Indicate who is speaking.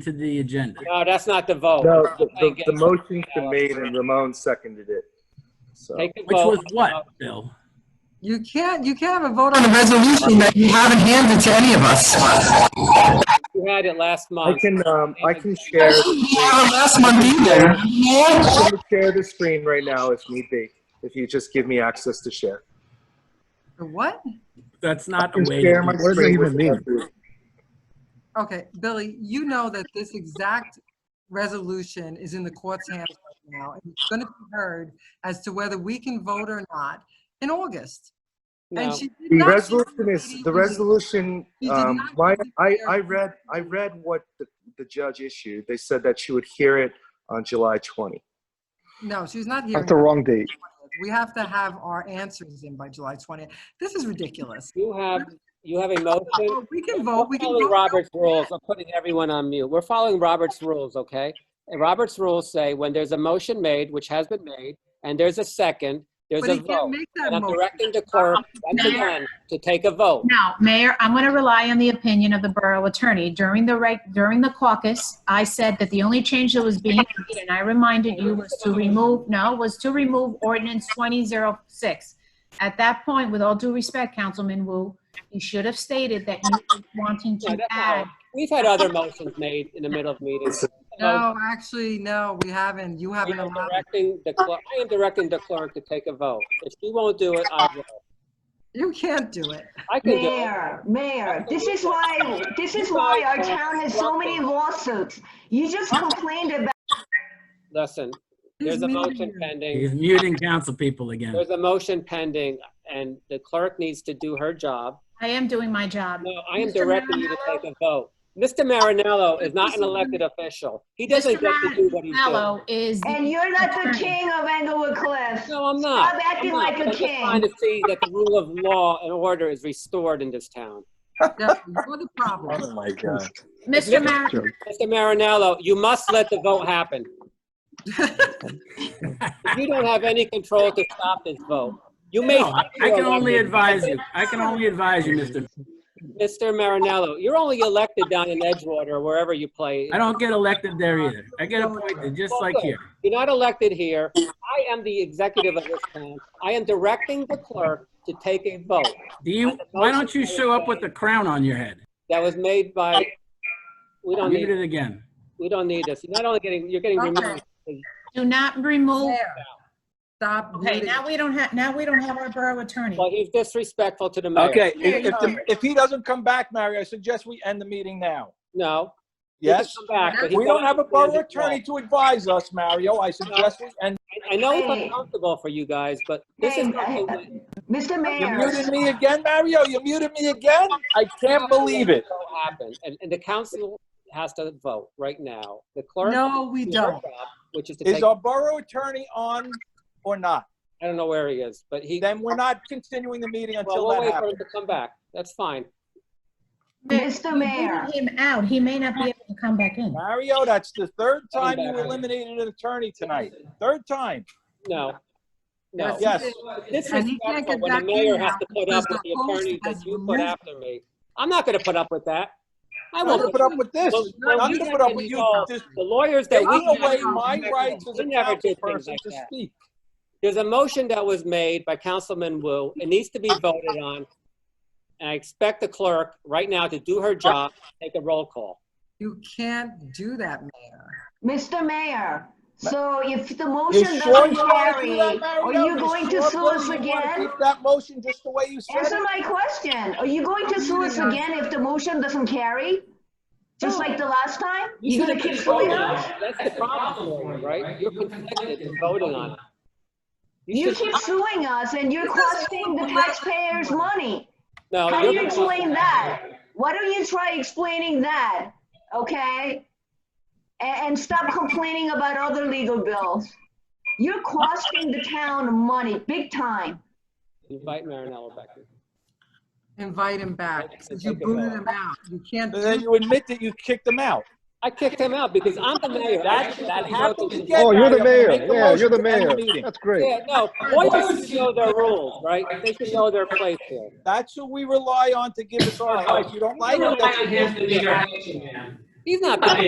Speaker 1: to the agenda.
Speaker 2: No, that's not the vote.
Speaker 3: No, the,
Speaker 2: I
Speaker 3: the,
Speaker 2: guess.
Speaker 3: the motion's been made and Ramon seconded it. So,
Speaker 2: Take the
Speaker 1: Which
Speaker 2: vote. Uh,
Speaker 1: was what, Bill?
Speaker 4: You can't, you can't have a vote on a resolution that you haven't handed to any of us.
Speaker 2: You had it last
Speaker 3: I
Speaker 2: month.
Speaker 3: can, um, I can share,
Speaker 4: We had it Last month either.
Speaker 3: I can share the screen right now if need be, if you just give me access to share.
Speaker 4: What?
Speaker 1: That's not
Speaker 3: I
Speaker 1: a
Speaker 3: can
Speaker 1: way.
Speaker 3: share my
Speaker 1: to do it.
Speaker 5: does that
Speaker 3: screen
Speaker 5: even
Speaker 3: with
Speaker 5: mean?
Speaker 3: everyone.
Speaker 4: Okay, Billy, you know that this exact resolution is in the court's hands right now. and It's going to be heard as to whether we can vote or not in August. And
Speaker 2: No.
Speaker 4: she did
Speaker 3: The
Speaker 4: not-
Speaker 3: resolution is, the resolution,
Speaker 4: He did
Speaker 3: um,
Speaker 4: not
Speaker 3: my,
Speaker 4: give
Speaker 3: I,
Speaker 4: their-
Speaker 3: I read, I read what the, the judge issued. They said that she would hear it on July 20.
Speaker 4: No, she's not here.
Speaker 5: That's the wrong date.
Speaker 4: We have to have our answers in by July 20th. This is ridiculous.
Speaker 2: You have, you have a motion.
Speaker 4: We can vote, we
Speaker 2: We're
Speaker 4: can
Speaker 2: following
Speaker 4: vote.
Speaker 2: Robert's rules. I'm putting everyone on mute. We're following Robert's rules, okay? And Robert's rules say when there's a motion made, which has been made, and there's a second, there's
Speaker 4: But
Speaker 2: a
Speaker 4: he can't
Speaker 2: vote.
Speaker 4: make
Speaker 2: And
Speaker 4: that
Speaker 2: I'm
Speaker 4: motion.
Speaker 2: directing the clerk once
Speaker 6: Mayor.
Speaker 2: again to take a vote.
Speaker 6: Now, Mayor, I'm going to rely on the opinion of the borough attorney. During the reg, during the caucus, I said that the only change that was being made, and I reminded you, was to remove, no, was to remove ordinance 2006. At that point, with all due respect, Councilman Wu, you should have stated that you were wanting
Speaker 2: No,
Speaker 6: to
Speaker 2: that's not
Speaker 6: add.
Speaker 2: right. We've had other motions made in the middle of meetings.
Speaker 4: No, actually, no, we haven't. You
Speaker 2: I
Speaker 4: haven't
Speaker 2: am
Speaker 4: allowed.
Speaker 2: directing the clerk, I am directing the clerk to take a vote. If she won't do it, I will.
Speaker 4: You can't do it.
Speaker 2: I can do it.
Speaker 7: Mayor, mayor, this is why, this is why our town has so many lawsuits. You just complained about
Speaker 2: Listen,
Speaker 4: He's
Speaker 2: there's a
Speaker 4: muting
Speaker 2: motion
Speaker 4: you.
Speaker 2: pending.
Speaker 1: He's muting council people again.
Speaker 2: There's a motion pending, and the clerk needs to do her job.
Speaker 6: I am doing my job.
Speaker 2: No, I am
Speaker 6: Mr.
Speaker 2: directing you to
Speaker 6: Marinello?
Speaker 2: take a vote. Mr. Marinello is not an elected official. He doesn't
Speaker 6: Mr.
Speaker 2: get to do what he does.
Speaker 6: Mello is. the-
Speaker 7: And you're not the king of Englewood Cliffs.
Speaker 2: No, I'm not.
Speaker 7: Stop acting
Speaker 2: I'm not,
Speaker 7: like a
Speaker 2: but I'm just
Speaker 7: king.
Speaker 2: trying to see that the rule of law and order is restored in this town.
Speaker 4: Yeah, You're the problem.
Speaker 5: my God.
Speaker 6: Mr. Marinello.
Speaker 2: Mr. Marinello, you must let the vote happen. You don't have any control to stop this vote. You may.
Speaker 1: No, I I can only
Speaker 2: You're
Speaker 1: advise you. I can only advise you, Mr.
Speaker 2: Mr. Marinello, you're only elected down in Edgewater, or wherever you play.
Speaker 1: I don't get elected there either. I get appointed, just like here.
Speaker 2: You're not elected here. I am the executive of this town. I am directing the clerk to take a vote
Speaker 1: Do you, why don't you show up with the crown on your head?
Speaker 2: that was made by, we don't
Speaker 1: Mute
Speaker 2: need,
Speaker 1: it again.
Speaker 2: we don't need this. You're not only getting, you're getting removed.
Speaker 6: Do not remove.
Speaker 4: Mayor, Stop.
Speaker 6: Okay,
Speaker 4: muting.
Speaker 6: now we don't have, now we don't have our borough attorney.
Speaker 2: Well, he's disrespectful to the mayor.
Speaker 8: Okay, if, if, the- if he doesn't come back, Mario, I suggest we end the meeting now.
Speaker 2: No. he can
Speaker 8: Yes?
Speaker 2: come back, but he's
Speaker 8: We don't
Speaker 2: not-
Speaker 8: have a borough attorney to advise us, Mario. I suggest we end.
Speaker 2: I- I know it's uncomfortable for you guys, but this is.
Speaker 7: Hey,
Speaker 2: something
Speaker 7: Mr.
Speaker 8: You
Speaker 7: Mayor,
Speaker 8: muted me again, Mario? You muted me again? I can't believe it.
Speaker 2: that happened, And, and the council has to vote right now. The clerk.
Speaker 4: No, we
Speaker 2: has to do her
Speaker 4: don't.
Speaker 2: job, Which is to
Speaker 8: Is
Speaker 2: take,
Speaker 8: our borough attorney on or not?
Speaker 2: I don't know where he is, but he,
Speaker 8: Then we're not continuing the meeting
Speaker 2: well,
Speaker 8: until
Speaker 2: we'll
Speaker 8: that
Speaker 2: wait for him
Speaker 8: happens.
Speaker 2: to come back. That's fine.
Speaker 7: Mr. Mayor.
Speaker 6: Vote Him out, he may not be able to come back in.
Speaker 8: Mario, that's the third time you
Speaker 2: back.
Speaker 8: eliminated an attorney tonight. Third time.
Speaker 2: No. No.
Speaker 4: Yes,
Speaker 8: Yes.
Speaker 2: This
Speaker 4: And
Speaker 2: is
Speaker 4: he can't
Speaker 2: when
Speaker 4: get
Speaker 2: the
Speaker 4: back
Speaker 2: mayor
Speaker 4: in
Speaker 2: has
Speaker 4: now
Speaker 2: to put up
Speaker 4: because
Speaker 2: with the
Speaker 4: host
Speaker 2: attorney that
Speaker 4: has
Speaker 2: you put
Speaker 4: removed-
Speaker 2: after me. I'm not gonna put up with that. I
Speaker 8: I'm not
Speaker 2: won't.
Speaker 8: gonna put up with this.
Speaker 2: Well,
Speaker 8: I'm
Speaker 2: well,
Speaker 8: not
Speaker 2: you
Speaker 8: gonna
Speaker 2: guys
Speaker 8: put up
Speaker 2: can
Speaker 8: with you,
Speaker 2: resolve
Speaker 8: this
Speaker 2: The lawyers that we.
Speaker 8: taking away
Speaker 4: never-
Speaker 8: my
Speaker 4: we
Speaker 8: rights as
Speaker 2: We
Speaker 8: a
Speaker 2: never did things
Speaker 8: councilperson
Speaker 2: like
Speaker 8: to
Speaker 2: that.
Speaker 8: speak.
Speaker 2: There's a motion that was made by Councilman Wu. It needs to be voted on. And I expect the clerk right now to do her job, take a roll call.
Speaker 4: You can't do that, Mayor.
Speaker 7: Mr. Mayor,
Speaker 8: Ma-
Speaker 7: so if the
Speaker 8: You
Speaker 7: motion
Speaker 8: sure
Speaker 7: doesn't
Speaker 8: you want to do
Speaker 7: carry,
Speaker 8: that,
Speaker 7: are
Speaker 8: Mario?
Speaker 7: you going to
Speaker 8: sure
Speaker 7: sue us
Speaker 8: really wanna
Speaker 7: again?
Speaker 8: Keep that motion just the way you said
Speaker 7: Answer
Speaker 8: it?
Speaker 7: my question. Are you going to sue us
Speaker 4: Yeah.
Speaker 7: again if the motion doesn't carry? Just like the last time?
Speaker 2: You
Speaker 7: You're
Speaker 2: should
Speaker 7: gonna
Speaker 2: have been
Speaker 7: keep
Speaker 2: voting
Speaker 7: suing
Speaker 2: on
Speaker 7: us?
Speaker 2: it. That's the problem, for you, right? You're conflicted in voting on it.
Speaker 7: You
Speaker 2: should-
Speaker 7: keep suing us and you're costing the taxpayers money.
Speaker 2: No,
Speaker 7: How do
Speaker 2: you're
Speaker 7: you
Speaker 2: conflicted.
Speaker 7: explain that? Why don't you try explaining that, okay? A- And, stop complaining about other legal bills. You're costing the town money, big time.
Speaker 2: Invite Marinello back. in.
Speaker 4: Invite him back, since you booted him out. You can't
Speaker 8: And then
Speaker 4: do,
Speaker 8: you admit that you kicked them out.
Speaker 2: I kicked him out because I'm the mayor.
Speaker 8: That,
Speaker 2: I-
Speaker 8: that
Speaker 2: I-
Speaker 8: happened
Speaker 2: I-
Speaker 8: again.
Speaker 5: Oh, you're the
Speaker 8: Mario.
Speaker 5: mayor.
Speaker 8: Make a
Speaker 5: Yeah, you're the
Speaker 8: motion to end
Speaker 5: mayor.
Speaker 8: meeting.
Speaker 5: That's great.
Speaker 2: Yeah, no, lawyers should know their rules, right? They should know their place here.
Speaker 8: That's who we rely on to give us our advice. You don't like it? that's-
Speaker 2: He's not.